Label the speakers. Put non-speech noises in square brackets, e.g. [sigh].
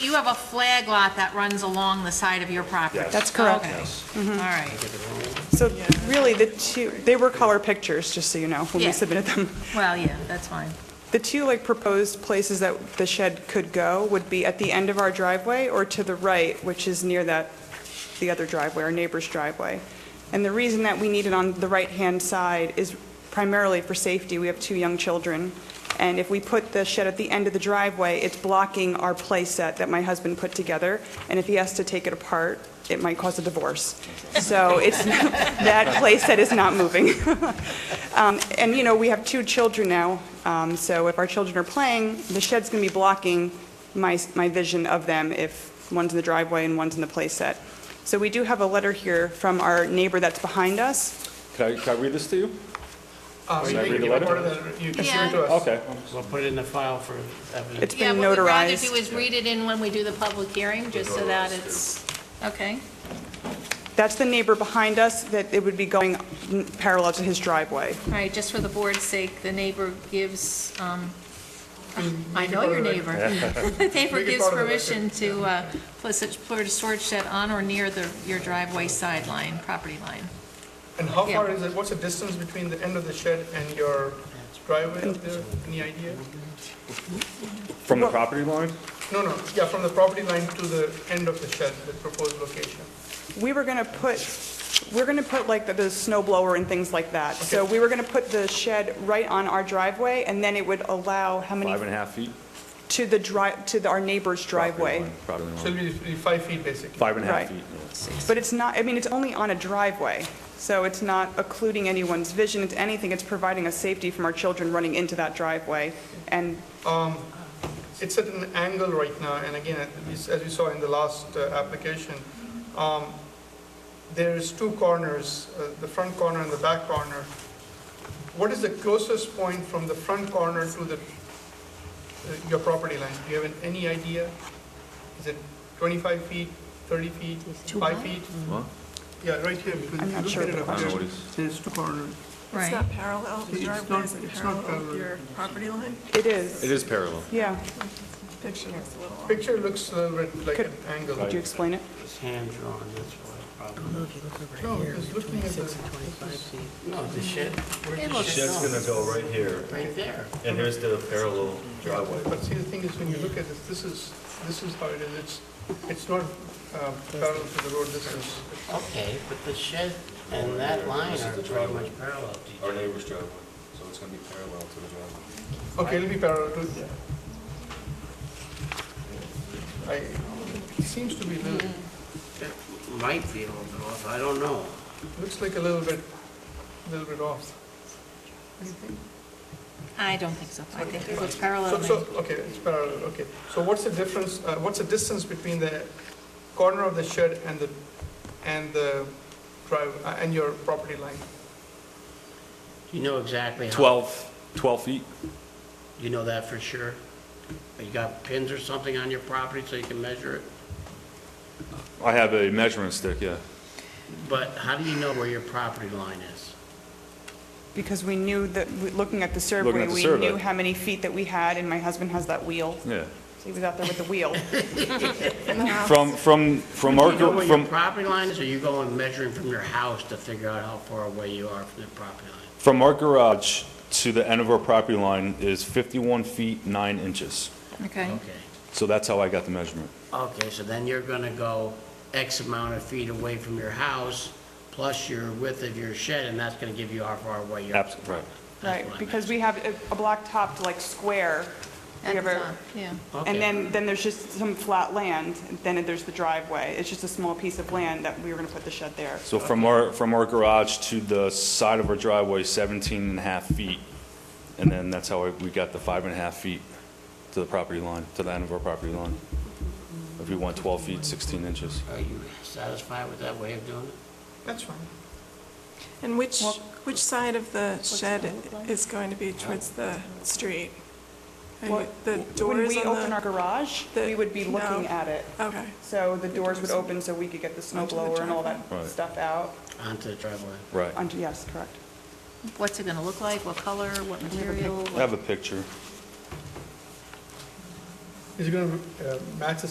Speaker 1: you have a flag lot that runs along the side of your property?
Speaker 2: That's correct.
Speaker 1: Okay, all right.
Speaker 2: So really, the two, they were color pictures, just so you know, when
Speaker 1: Yeah.
Speaker 2: we submitted them.
Speaker 1: Well, yeah, that's fine.
Speaker 2: The two like proposed places that the shed could go would be at the end of our driveway or to the right, which is near that, the other driveway, our neighbor's driveway. And the reason that we need it on the right-hand side is primarily for safety. We have two young children. And if we put the shed at the end of the driveway, it's blocking our play set that my husband put together. And if he has to take it apart, it might cause a divorce. So it's, [laughs] that play set is not moving. [laughs] Um, And, you know, we have two children now, um, so if our children are playing, the shed's going to be blocking my, my vision of them if one's in the driveway and one's in the playset. So we do have a letter here from our neighbor that's behind us.
Speaker 3: Can I, can I read this to you?
Speaker 4: Uh,
Speaker 3: Can
Speaker 4: you
Speaker 3: I
Speaker 4: can
Speaker 3: read the
Speaker 4: give a
Speaker 3: letter?
Speaker 4: part of that, you can
Speaker 1: Yeah.
Speaker 4: send it to us.
Speaker 3: Okay.
Speaker 5: We'll put it in the file for evidence.
Speaker 2: It's been
Speaker 1: Yeah, what we'd rather do
Speaker 2: notarized.
Speaker 1: is read it in when we do the public hearing, just so that it's, okay.
Speaker 2: That's the neighbor behind us, that it would be going parallel to his driveway.
Speaker 1: All right, just for the board's sake, the neighbor gives, um, I know
Speaker 4: part
Speaker 1: your
Speaker 4: of the-
Speaker 1: neighbor.
Speaker 4: [laughs]
Speaker 1: The neighbor
Speaker 4: Make it
Speaker 1: gives
Speaker 4: part of the
Speaker 1: permission to uh, put such, put a storage shed on or near the, your driveway sideline, property line.
Speaker 4: And how
Speaker 1: Yeah.
Speaker 4: far is it, what's the distance between the end of the shed and your driveway up there? Any idea?
Speaker 3: From the property line?
Speaker 4: No, no, yeah, from the property line to the end of the shed, the proposed location.
Speaker 2: We were going to put, we're going to put like the- the snow blower and things like that. So we were going to put the shed right on our driveway, and then it would allow how many?
Speaker 3: Five and a half feet?
Speaker 2: To the drive, to the- our neighbor's driveway.
Speaker 3: Property line,
Speaker 4: So
Speaker 3: property line.
Speaker 4: it'll be be five feet basically.
Speaker 3: Five and a half
Speaker 2: Right.
Speaker 3: feet. yeah.
Speaker 2: But it's not, I mean, it's only on a driveway, so it's not occluding anyone's vision, it's anything, it's providing us safety from our children running into that driveway. And
Speaker 4: Um, It's at an angle right now, and again, at least as we saw in the last uh, application, um, there's two corners, uh, the front corner and the back corner. What is the closest point from the front corner to the, uh, your property line? Do you have an- any idea? Is it 25 feet, 30 feet, 5 feet?
Speaker 3: What?
Speaker 4: Yeah, right here, because
Speaker 2: I'm
Speaker 4: if you
Speaker 2: not
Speaker 4: look
Speaker 2: sure
Speaker 4: at it
Speaker 2: the
Speaker 4: up
Speaker 3: question. I don't know what
Speaker 4: there,
Speaker 3: it's-
Speaker 4: there's two corners.
Speaker 6: It's
Speaker 1: Right.
Speaker 6: not parallel, the
Speaker 4: It's
Speaker 6: driveway
Speaker 4: not-
Speaker 6: isn't
Speaker 4: it's not
Speaker 6: parallel
Speaker 4: parallel.
Speaker 6: to your property line?
Speaker 2: it is,
Speaker 3: It is parallel.
Speaker 2: yeah.
Speaker 6: Picture is a little off.
Speaker 4: Picture looks a little bit like
Speaker 2: Could-
Speaker 4: an angle.
Speaker 2: Could you explain it?
Speaker 5: It's hand drawn, that's why the problem.
Speaker 7: If you look over
Speaker 4: No,
Speaker 7: here,
Speaker 4: it's looking at the-
Speaker 7: 26 and 25 feet.
Speaker 5: No, the shed, where's
Speaker 1: It
Speaker 5: the
Speaker 1: looks-
Speaker 5: shed?
Speaker 8: Shed's gonna go right here,
Speaker 5: Right there.
Speaker 8: and here's the parallel driveway.
Speaker 4: But see, the thing is, when you look at this, this is, this is how it is, it's, it's not um, parallel to the road, this is,
Speaker 5: Okay, but the shed and that line
Speaker 8: This is
Speaker 5: are
Speaker 8: the
Speaker 5: pretty
Speaker 8: driveway.
Speaker 5: much parallel to each
Speaker 8: Our
Speaker 5: other.
Speaker 8: neighbor's driveway, so it's gonna be parallel to the driveway.
Speaker 4: okay, it'll be parallel to, I, it seems to be a little,
Speaker 5: It Might be a little bit off, I don't know.
Speaker 4: looks like a little bit, little bit off. What do you think?
Speaker 1: I don't think so. I think it looks parallel.
Speaker 4: So,
Speaker 1: to
Speaker 4: so,
Speaker 1: me.
Speaker 4: okay, it's parallel, okay. So what's the difference, uh, what's the distance between the corner of the shed and the, and the drive, uh, and your property line?
Speaker 5: You know exactly how.
Speaker 3: 12, 12 feet?
Speaker 5: You know that for sure? You got pins or something on your property so you can measure it?
Speaker 3: I have a measuring stick, yeah.
Speaker 5: But how do you know where your property line is?
Speaker 2: Because we knew that, we- looking at the
Speaker 3: Looking
Speaker 2: survey,
Speaker 3: at the
Speaker 2: we
Speaker 3: survey.
Speaker 2: knew how many feet that we had, and my husband has that wheel.
Speaker 3: Yeah.
Speaker 2: He was out there with the
Speaker 3: [laughs]
Speaker 2: wheel.
Speaker 3: From, from, from our,
Speaker 5: Do Um, you know
Speaker 3: gr-
Speaker 5: where your
Speaker 3: from,
Speaker 5: property line is, or you go and measuring from your house to figure out how far away you are from the property line?
Speaker 3: from our garage to the end of our property line is 51 feet 9 inches.
Speaker 1: Okay.
Speaker 5: Okay.
Speaker 3: So that's how I got the measurement.
Speaker 5: Okay, so then you're gonna go X amount of feet away from your house, plus your width of your shed, and that's gonna give you how far away you're.
Speaker 3: Abs- right.
Speaker 2: Right, because we have a- a black-topped, like, square. We
Speaker 1: At the
Speaker 2: have a-
Speaker 1: top, Yeah.
Speaker 2: And then, then there's just some flat land, and then there's the driveway. It's just a small piece of land that we were going to put the shed there.
Speaker 3: So from our, from our garage to the side of our driveway, 17 and a half feet. And then that's how we got the five and a half feet to the property line, to the end of our property line. If we want 12 feet, 16 inches.
Speaker 5: Are you satisfied with that way of doing it?
Speaker 4: That's fine.
Speaker 6: And which, which side of the shed is going to be towards the street? And
Speaker 2: Well,
Speaker 6: The
Speaker 2: When
Speaker 6: doors
Speaker 2: we
Speaker 6: on
Speaker 2: open our
Speaker 6: the,
Speaker 2: garage,
Speaker 6: the-
Speaker 2: we would be looking
Speaker 6: no.
Speaker 2: at it.
Speaker 6: okay,
Speaker 2: So the doors would open so we could get the snow
Speaker 6: Onto the
Speaker 2: blower and all that
Speaker 6: driveway.
Speaker 3: Right.
Speaker 2: stuff out.
Speaker 5: Onto the driveway.
Speaker 3: Right. I
Speaker 2: Onto, yes, correct.
Speaker 1: What's it gonna look like? What color? What material? what-
Speaker 3: have a picture.
Speaker 4: Is it going to uh, match the